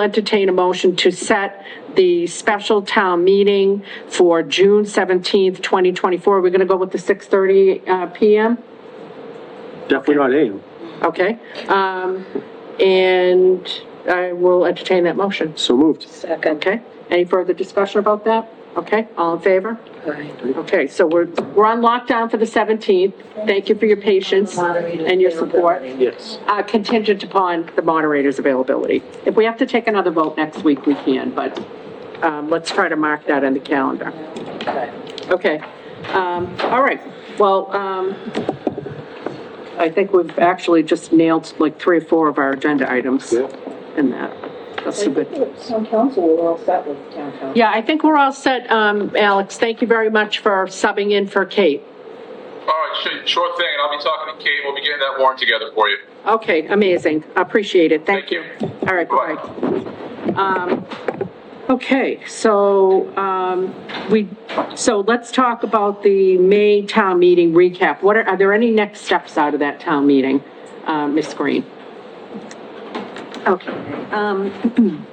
entertain a motion to set the special town meeting for June 17th, 2024. We're going to go with the 6:30 uh, PM? Definitely not aim. Okay. Um, And I will entertain that motion. So moved. Second. Okay? Any further discussion about that? Okay, all in favor? Aye. Okay, so we're, we're on lockdown for the 17th. Thank you for your patience and your support. Yes. Uh, contingent upon the moderator's availability. If we have to take another vote next week, we can, but, um, let's try to mark that in the calendar. Okay, um, all right, well, um, I think we've actually just nailed like three or four of our agenda items Yeah. in that. That's a good. Town council, we're all set with town council. Yeah, I think we're all set, um, Alex, thank you very much for subbing in for Kate. All right, sure, sure thing, and I'll be talking to Kate, we'll be getting that warrant together for you. Okay, amazing, appreciate it, thank Thank you. you. All right, Bye. bye. Um, Okay, so, um, we, so let's talk about the May town meeting recap. What are, are there any next steps out of that town meeting, uh, Ms. Green? Okay. um,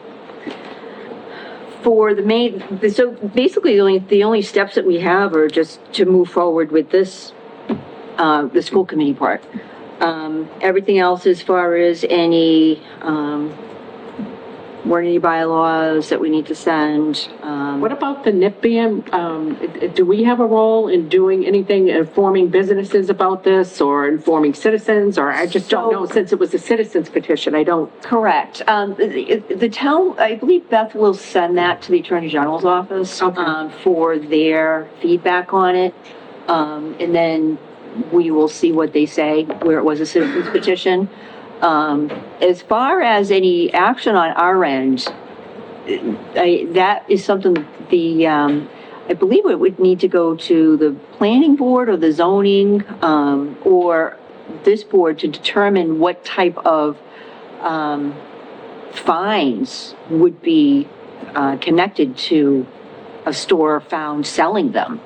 For the main, so basically, the only, the only steps that we have are just to move forward with this, uh, the school committee part. Um, everything else as far as any, um, warning bylaws that we need to send, um. What about the NIPBM? Um, it- it- do we have a role in doing anything, informing businesses about this or informing citizens? Or I just don't know, So- since it was a citizens petition, I don't, Correct. Um, the, the town, I believe Beth will send that to the Attorney General's office, Okay. um, for their feedback on it. Um, and then we will see what they say, where it was a citizen's petition. Um, as far as any action on our end, I, that is something the, um, I believe it would need to go to the planning board or the zoning, um, or this board to determine what type of, um, fines would be, uh, connected to a store found selling them.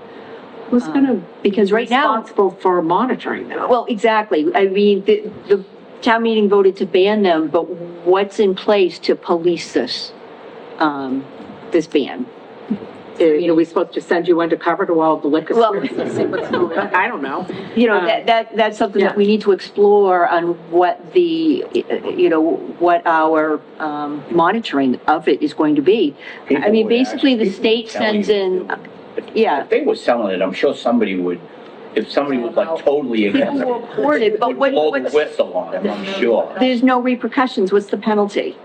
who's gonna be Because right now, um, responsible for monitoring that? well, exactly. I mean, the, the town meeting voted to ban them, but what's in place to police this, um, this ban? You know, we supposed to send you undercover to all the liquor Well- stores and see what's going on? I don't know. you know, Um, that, that, that's something yeah. that we need to explore on what the, you know, what our, um, monitoring of it is going to be. I mean, People would ask- basically, the people would state tell you sends to in, uh, do it. If- yeah. If they were selling it, I'm sure somebody would, if somebody was like totally against people it, will report it, but would what, blow the what's, whistle on them, I'm sure. there's no repercussions, what's the penalty?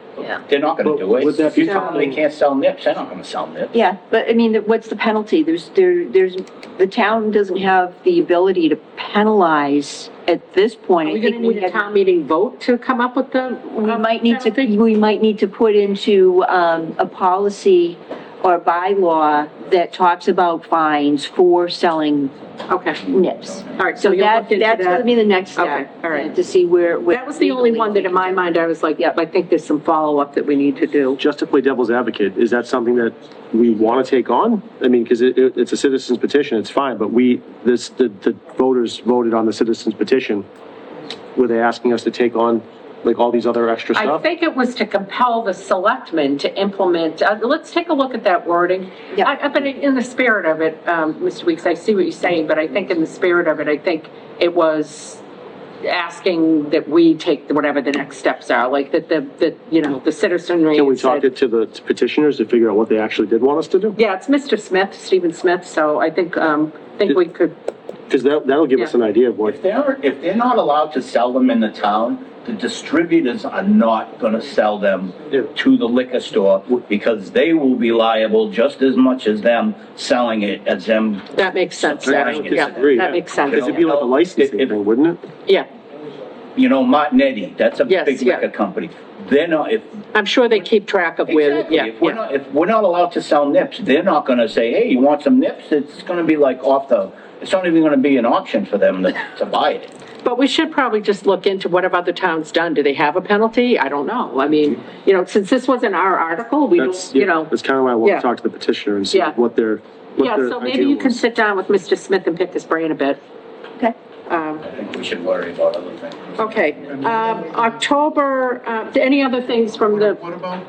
They're not gonna do But would it. that If be- you tell them they can't sell nips, they're not gonna sell nips. Yeah, but I mean, the- what's the penalty? There's, there, there's, the town doesn't have the ability to penalize at this point. Are I we gonna think we need a had- town meeting vote to come up with the? We um, might need to, penalty? we might need to put into, um, a policy or bylaw that talks about fines for selling Okay, nips. all right, so So you'll that, look into that's gonna be that. the next Okay, step. all right. uh, To see where. where That was the only one that in my mind, I was like, yep, I think there's some follow-up that we need to do. Just to play devil's advocate, is that something that we want to take on? I mean, because it, it- it's a citizen's petition, it's fine, but we, this, the, the voters voted on the citizen's petition. Were they asking us to take on like all these other extra I stuff? think it was to compel the selectmen to implement, uh, let's take a look at that wording. Yeah. I, I- but in the spirit of it, um, Mr. Weeks, I see what you're saying, but I think in the spirit of it, I think it was asking that we take whatever the next steps are, like that the, that, you know, the citizenry. Can we said- talk it to the petitioners to figure out what they actually did want us to do? Yeah, it's Mr. Smith, Stephen Smith, so I think, um, I think we could, Because that, that'll give us Yeah. an idea of what, If they're, if they're not allowed to sell them in the town, the distributors are not gonna sell them Yeah. to the liquor store because they will be liable just as much as them selling it as them that makes sense. I don't actually. Yeah, disagree, yeah. That makes sense, because it'd be like a licensing If- if- thing, wouldn't Oh, it? yeah. you know, Martinetti, that's a Yes, big yeah. liquor company. They're not, if, I'm sure they keep track of where, exactly, yeah, if we're yeah. not, if we're not allowed to sell nips, they're not gonna say, hey, you want some nips? It's gonna be like off the, it's not even gonna be an option for them to, to buy it. But we should probably just look into what have other towns done? Do they have a penalty? I don't know. I mean, you know, since this wasn't our article, we That's, don't, you know. that's kind of why I want yeah. to talk to the petitioner and see Yeah. what their, Yeah, what their so maybe idea you can was. sit down with Mr. Smith and pick his brain a bit. Okay. Um, I think we should worry about other things. okay, um, October, uh, any other things from the What about